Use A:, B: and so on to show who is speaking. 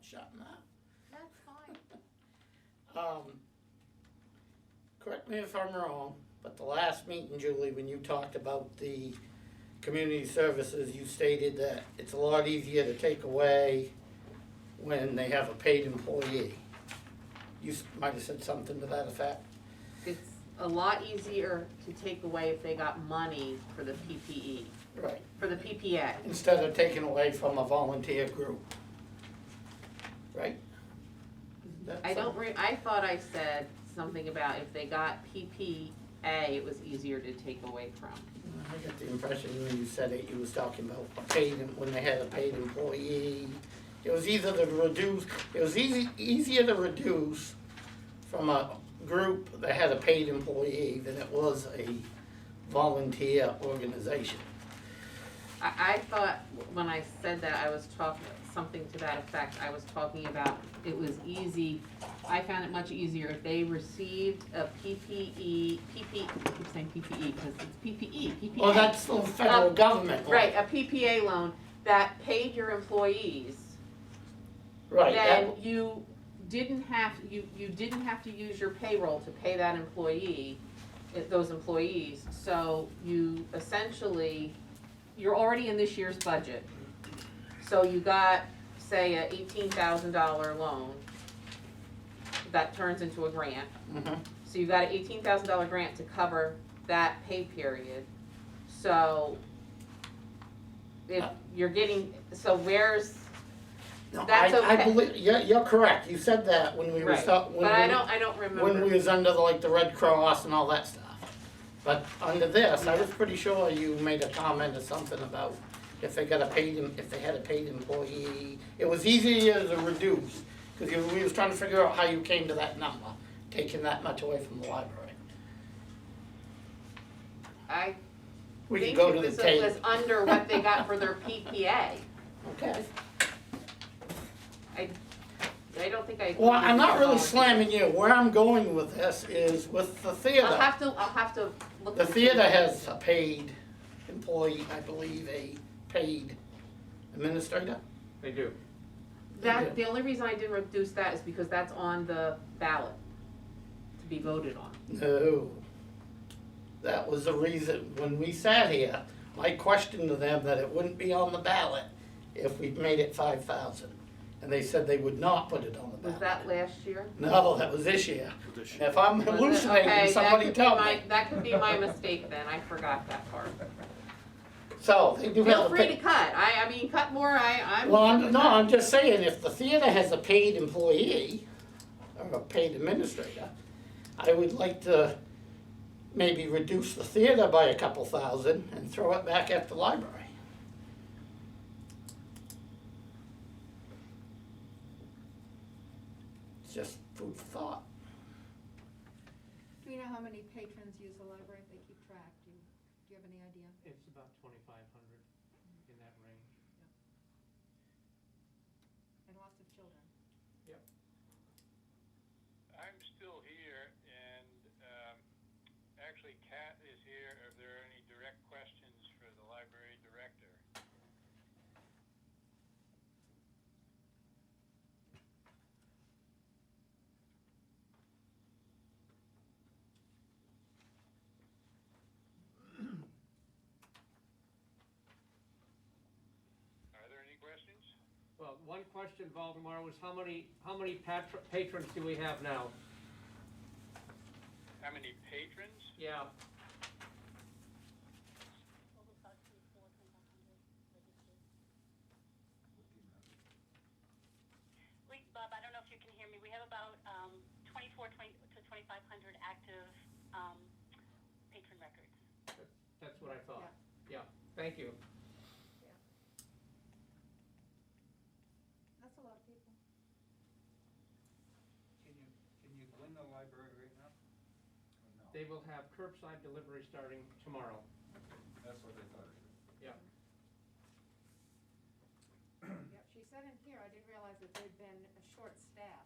A: shut up.
B: That's fine.
A: Um, correct me if I'm wrong, but the last meeting, Julie, when you talked about the community services, you stated that it's a lot easier to take away when they have a paid employee. You s- might have said something to that effect.
B: It's a lot easier to take away if they got money for the PPE,
A: Right.
B: for the PPA.
A: Instead of taking away from a volunteer group. Right? That's
B: I don't
A: a-
B: re, I thought I said something about if they got PPA, it was easier to take away from.
A: I got the impression when you said it, you was talking about paid, when they had a paid employee. It was either to reduce, it was easy, easier to reduce from a group that had a paid employee than it was a volunteer organization.
B: I, I thought when I said that, I was talking, something to that effect, I was talking about it was easy. I found it much easier if they received a PPE, PP, I keep saying PPE, cause it's E, PPE, PPA.
A: Well, that's the federal
B: Uh,
A: government law.
B: Right, a PPA loan that paid your employees,
A: Right,
B: then
A: that-
B: you didn't have, you, you didn't have to use your payroll to pay that employee, eh, those employees, so you essentially, you're already in this year's budget. So you got, say, a eighteen thousand dollar loan that turns into a grant,
A: mhm.
B: so you got an eighteen thousand dollar grant to cover that pay period, so if
A: Uh.
B: you're getting, so where's,
A: No,
B: That's
A: I, I
B: okay.
A: believe, you're, you're correct, you said that when we were,
B: right,
A: start- when
B: but I
A: we-
B: don't, I don't
A: when we
B: remember.
A: was under the, like the Red Cross and all that stuff. But under this, I was pretty sure you made a comment or something about if they got a paid, em- if they had a paid employee, it was easier to reduce, cause you, we was trying to figure out how you came to that number, taking that much away from the library.
B: I
A: We could
B: think
A: go
B: it
A: to the
B: was,
A: tape.
B: it was under what they got for their PPA,
A: Okay,
B: I don't think I.
A: well, I'm not really
B: I'll-
A: slamming you, where I'm going with this is with the theater.
B: I'll have to, I'll have to look.
A: The
B: into
A: theater
B: it.
A: has a paid employee, I believe, a paid administrator.
C: They do.
B: That, the only reason I didn't reduce that is because that's on the ballot to be voted on.
A: No. That was the reason, when we sat here, my question to them that it wouldn't be on the ballot if we made it five thousand. And they said they would not put it on the
B: Was
A: ballot.
B: that last year?
A: No, that was this year.
C: This
A: And If I'm
B: Was it?
A: hallucinating,
B: Okay, that
A: somebody
B: could be
A: tell
B: my-
A: me.
B: That could be my mistake then, I forgot that part.
A: So they do
B: Feel
A: have a
B: free to
A: paid.
B: cut, I, I mean, cut more, I, I'm.
A: Well, I'm, no, I'm just saying, if the theater has a paid employee or a paid administrator, I would like to maybe reduce the theater by a couple thousand and throw it back at the library. It's just food for thought.
D: Do you know how many patrons use the library, if they keep track, do you, do you have any idea?
E: It's about twenty-five hundred in that range.
D: And lots of children.
F: I'm still here, and um, actually Kat is here if there are any direct questions for the library director. Are there any questions?
E: Well, one question, Valdemar, was how many, how many patr- patrons do we have now?
F: How many patrons?
E: Yeah.
G: We, Bob, I don't know if you can hear me. We have about um, 24 20, to 2,500 active um, patron records.
E: That's what I thought. Yeah, thank you.
D: That's a lot of people.
H: Can you, can you go in the library right now? Or no?
E: They will have curbside delivery starting tomorrow.
H: That's what I thought.
D: Yep, she said in here, I didn't realize that there'd been a short staff.